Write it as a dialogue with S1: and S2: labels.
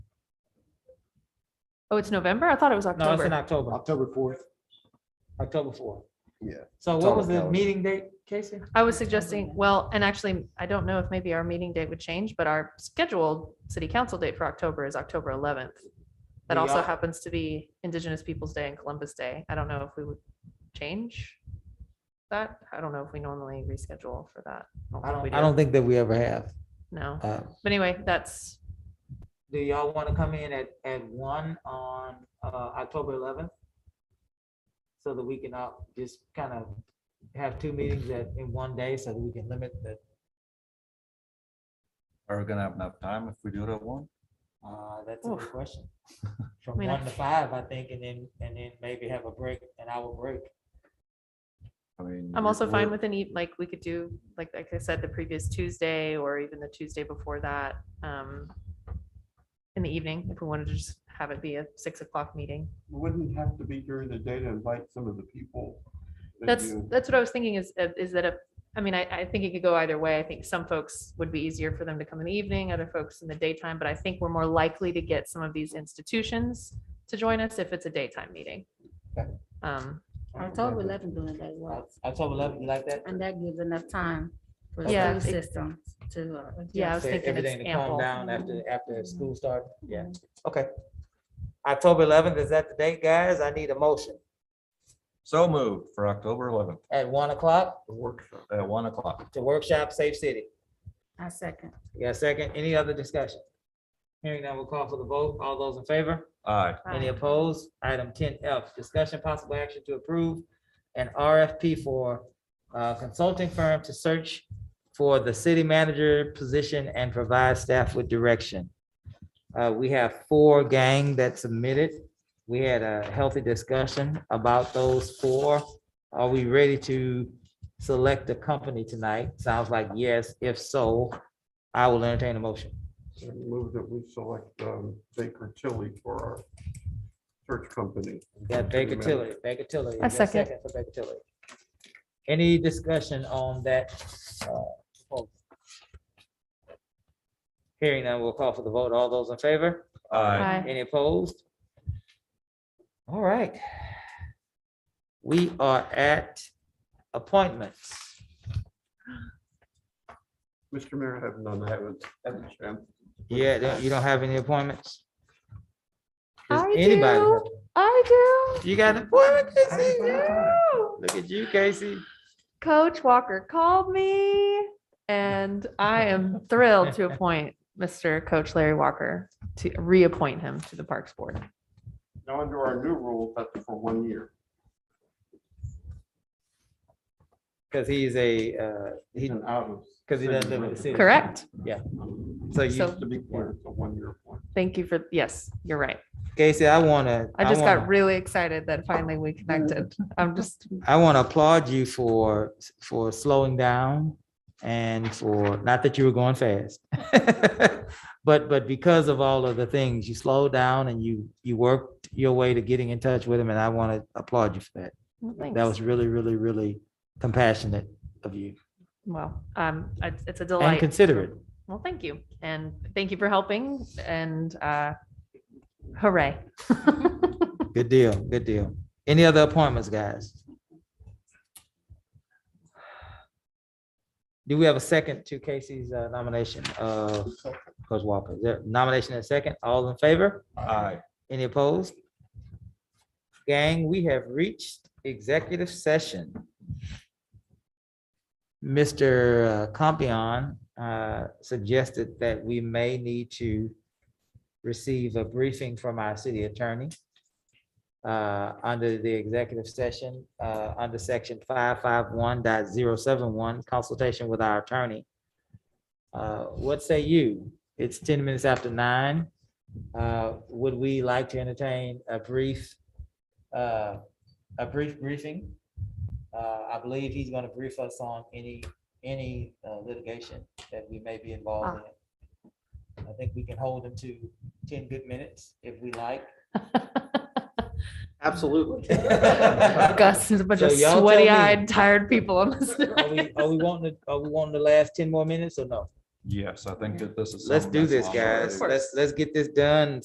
S1: Oh, it's November? I thought it was
S2: No, it's in
S1: October.
S2: October,
S3: October fourth.
S2: October fourth.
S3: Yeah.
S2: So
S3: It's
S2: what
S3: on
S2: was
S3: the
S2: the
S3: calendar.
S2: meeting date, Casey?
S1: I was suggesting, well, and actually, I don't know if maybe our meeting date would change, but our scheduled city council date for October is October eleventh. That
S2: We
S1: also
S2: are-
S1: happens to be Indigenous Peoples' Day and Columbus Day. I don't know if we would change that. I don't know if we normally reschedule for that.
S2: I
S1: think we
S2: don't,
S1: do.
S2: I don't think that we ever have.
S1: No,
S2: Uh,
S1: but anyway, that's,
S2: Do y'all want to come in at, at one on, uh, October eleventh? So that we can, uh, just kind of have two meetings at, in one day so that we can limit the,
S4: Are we gonna have enough time if we do it at one?
S2: uh, that's a
S1: Oof.
S2: good question. From
S1: mean, I-
S2: one to five, I think, and then, and then maybe have a break, an hour break.
S4: I mean.
S1: I'm
S4: we-
S1: also fine
S4: we're-
S1: with any, like, we could do, like, like I said, the previous Tuesday or even the Tuesday before that. um, In the evening, if we wanted to just have it be a six o'clock meeting.
S5: Wouldn't have to be during the day to invite some of the people. that
S1: That's,
S5: you-
S1: that's what I was thinking is, uh, is that, if- I mean, I, I think it could go either way. I think some folks would be easier for them to come in the evening, other folks in the daytime, but I think we're more likely to get some of these institutions to join us if it's a daytime meeting.
S2: Okay.
S1: Um,
S6: October eleventh doing that works,
S2: October eleventh, you like that?
S6: and that gives enough time for
S1: Yeah,
S6: the
S1: it-
S6: school system to. uh,
S1: Yeah, I was
S2: for
S1: thinking it's
S2: everything to calm
S1: ample.
S2: down after, after school starts. Yeah, okay. October eleventh, is that the date, guys? I need a motion
S4: So moved for October eleventh
S2: at one o'clock
S4: at one o'clock.
S2: to workshop Safe City.
S6: I second.
S2: You got a second? Any other discussion? Hearing none, we'll call for the vote. All those in favor?
S4: Aye.
S2: Any opposed? Item ten F, discussion possible action to approve an RFP for uh, consulting firm to search for the city manager position and provide staff with direction. Uh, we have four gang that submitted. We had a healthy discussion about those four. Are we ready to select a company tonight? Sounds like yes. If so, I will entertain a motion.
S5: Move that we select um, Baker Tilly for our search company.
S2: Yeah, Baker Tilly, Baker Tilly.
S1: I
S2: Is there a
S1: second.
S2: for Baker Tilly. Any discussion on that? uh, proposal? Hearing none, we'll call for the vote. All those in favor?
S4: Aye.
S1: Aye.
S2: Any opposed? All right. We are at appointments.
S5: Mr. Mayor, I have none. I haven't. haven't checked.
S2: Yeah, don't- you don't have any appointments? Does
S1: I
S2: anybody
S1: do.
S2: have-
S1: I
S2: You got an appointment, Casey?
S1: do.
S2: Look at you, Casey.
S1: Coach Walker called me and I am thrilled to appoint Mr. Coach Larry Walker to reappoint him to the Parks Board.
S5: Now, under our new rule, that's for one year.
S2: Because he's a, uh, he,
S5: He's an out of.
S2: because he doesn't live in the
S5: city
S2: city.
S1: Correct.
S5: resident.
S2: So you,
S1: So-
S5: To be clear, it's a one-year appointment.
S1: Thank you for, yes, you're right.
S2: Casey, I want to.
S1: I just got really excited that finally we connected. I'm just,
S2: I want to applaud you for, for slowing down and for, not that you were going fast. But, but because of all of the things, you slowed down and you, you worked your way to getting in touch with him and I want to applaud you for that.
S1: well,
S2: That
S1: thanks.
S2: was really, really, really compassionate of you
S1: Well, um, it's it's a
S2: and
S1: delight.
S2: considerate.
S1: Well, thank you. And thank you for helping and uh, hooray.
S2: Good deal, good deal. Any other appointments, guys? Do we have a second to Casey's uh, nomination of Coach Walker? Is there Nomination and second, all in favor?
S4: Aye.
S2: Any opposed? Gang, we have reached executive session. Mr. Compion uh, suggested that we may need to receive a briefing from our city attorney uh, under the executive session, uh, under section 551.071, consultation with our attorney. Uh, What say you? It's ten minutes after nine. Uh, Would we like to entertain a brief, uh, a brief briefing? Uh, I believe he's gonna brief us on any, any uh, litigation that we may be involved in. I think we can hold him to ten good minutes if we like.
S3: Absolutely.
S1: Gus is a bunch
S2: So
S1: of
S2: y'all tell me.
S1: sweaty-eyed, tired people on this.
S2: Are we, are we wanting, to- are we wanting the last ten more minutes or no?
S4: Yes, I think that this is.
S2: Let's
S4: something
S2: do
S4: that's
S2: this,
S4: longer.
S2: guys.
S1: course.
S2: Let's, let's get this done